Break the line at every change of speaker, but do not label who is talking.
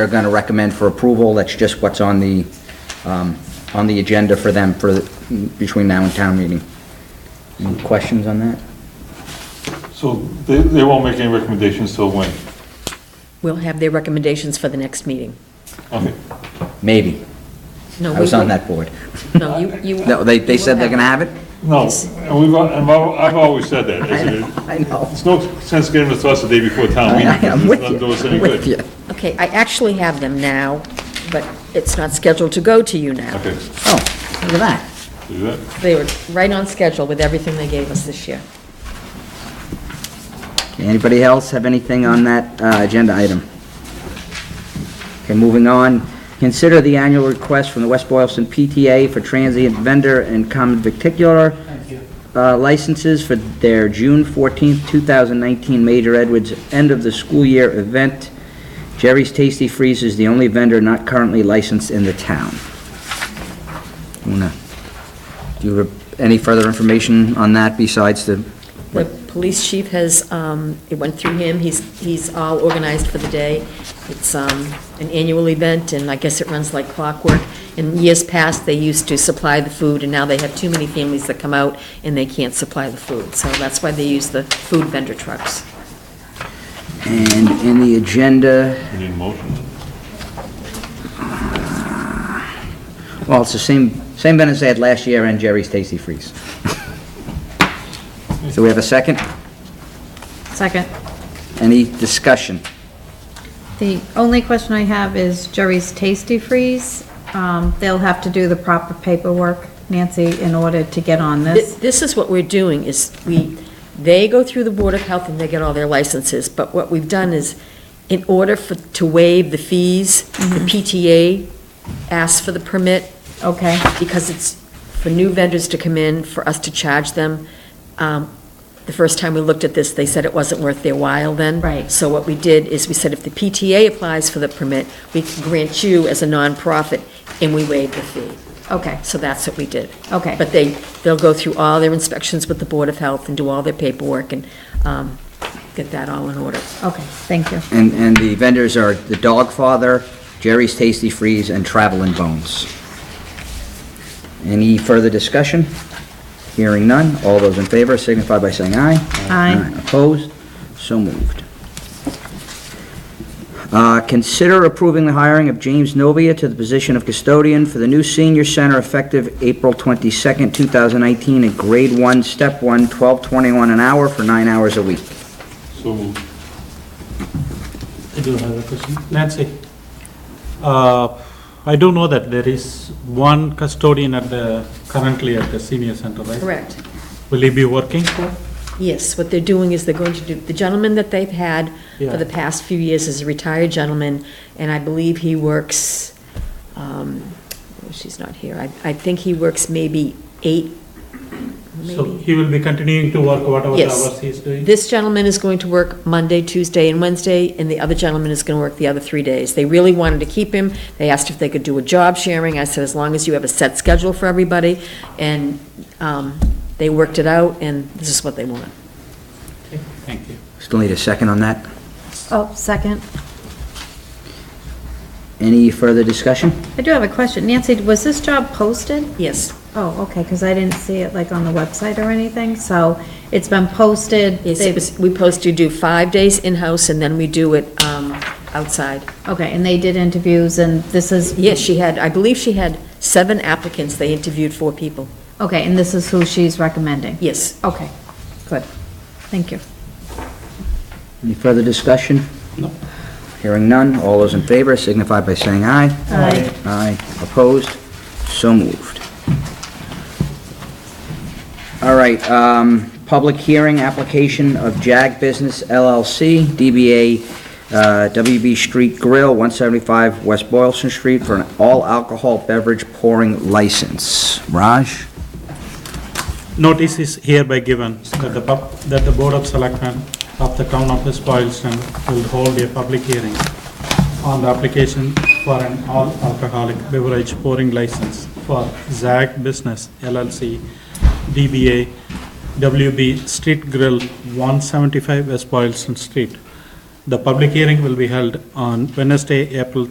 they're going to recommend for approval. That's just what's on the, um, on the agenda for them for, the- between now and town meeting. Any questions on that?
So they, they won't make any recommendations till when?
We'll have their recommendations for the next meeting.
Okay,
Maybe.
No,
I was
we
on
will-
that board.
No, you, you.
No, They, they
you will
said they're going to have it?
no, and we've, al- and I've I've always said that. It's-
I know.
It's no sense getting it to us the day before town meeting,
I'm
because
with
it's not doing us
you,
any
I'm with you.
good.
Okay, I actually have them now, but it's not scheduled to go to you now.
Okay,
Oh, look at that.
do that.
They were right on schedule with everything they gave us this year.
Anybody else have anything on that uh, agenda item? Okay, moving on. Consider the annual request from the West Boylston PTA for transient vendor and common victicular uh, licenses for their June 14th, 2019 Major Edwards End of the School Year event. Jerry's Tasty Freeze is the only vendor not currently licensed in the town. Una, do you have any further information on that besides the,
The police chief has, um, it went through him, he's, he's all organized for the day. It's um, an annual event, and I guess it runs like clockwork. In years past, they used to supply the food, and now they have too many families that come out, and they can't supply the food. So that's why they use the food vendor trucks.
and in the agenda?
We need a motion.
Well, it's the same, same vendors they had last year and Jerry's Tasty Freeze. So we have a second?
Second.
Any discussion?
The only question I have is Jerry's Tasty Freeze. Um, They'll have to do the proper paperwork, Nancy, in order to get on
Th-
this.
This is what we're doing, is we, they go through the Board of Health and they get all their licenses, but what we've done is, in order for, to waive the fees,
Mm-hmm.
the PTA asks for the permit,
Okay,
because it's for new vendors to come in, for us to charge them. Um, The first time we looked at this, they said it wasn't worth their while then.
Right.
So what we did is, we said if the PTA applies for the permit, we can grant you as a nonprofit, and we waive the fee.
okay,
So that's what we did.
okay.
But they, they'll go through all their inspections with the Board of Health and do all their paperwork and um, get that all in order.
Okay, thank you.
And, and the vendors are The Dog Father, Jerry's Tasty Freeze, and Travelin' Bones. Any further discussion? Hearing none, all those in favor signify by saying aye.
Aye.
Opposed? So moved. Uh, Consider approving the hiring of James Novia to the position of custodian for the new senior center effective April 22nd, 2019, at grade 1, step 1, 1221 an hour for nine hours a week.
So moved.
I do have a question. Nancy, uh, I do know that there is one custodian at the, currently at the senior center, right?
Correct.
Will he be working for?
Yes, what they're doing is they're going to do, the gentleman that they've had for the
Yeah.
past few years is a retired gentleman, and I believe he works, um, oh, she's not here, I, I think he works maybe eight,
So
maybe.
he will be continuing to work whatever the
Yes.
hours he is doing?
This gentleman is going to work Monday, Tuesday, and Wednesday, and the other gentleman is going to work the other three days. They really wanted to keep him. They asked if they could do a job sharing. I said, as long as you have a set schedule for everybody, and um, they worked it out, and this is what they want.
Okay, Thank you.
Still need a second on that?
Oh, second.
Any further discussion?
I do have a question. Nancy, was this job posted?
Yes,
Oh, okay, because I didn't see it like on the website or anything, so it's been posted.
yes,
They-
it was- we post, you do five days in-house, and then we do it um, outside.
Okay, and they did interviews and this is.
Yes, she had, I believe she had seven applicants. They interviewed four people.
Okay, and this is who she's recommending?
Yes.
Okay, good. Thank you.
Any further discussion?
No.
Hearing none, all those in favor signify by saying aye.
Aye.
Aye, opposed, so moved. All right, um, public hearing, application of JAG Business LLC, DBA uh, WB Street Grill, 175 West Boylston Street, for an all-alcohol beverage pouring license. Raj?
Notice is hereby given that the, pub- that the Board of Selectmen of the Town of West Boylston will hold a public hearing on the application for an all-alcoholic beverage pouring license for Zag Business LLC, DBA WB Street Grill, 175 West Boylston Street. The public hearing will be held on Wednesday, April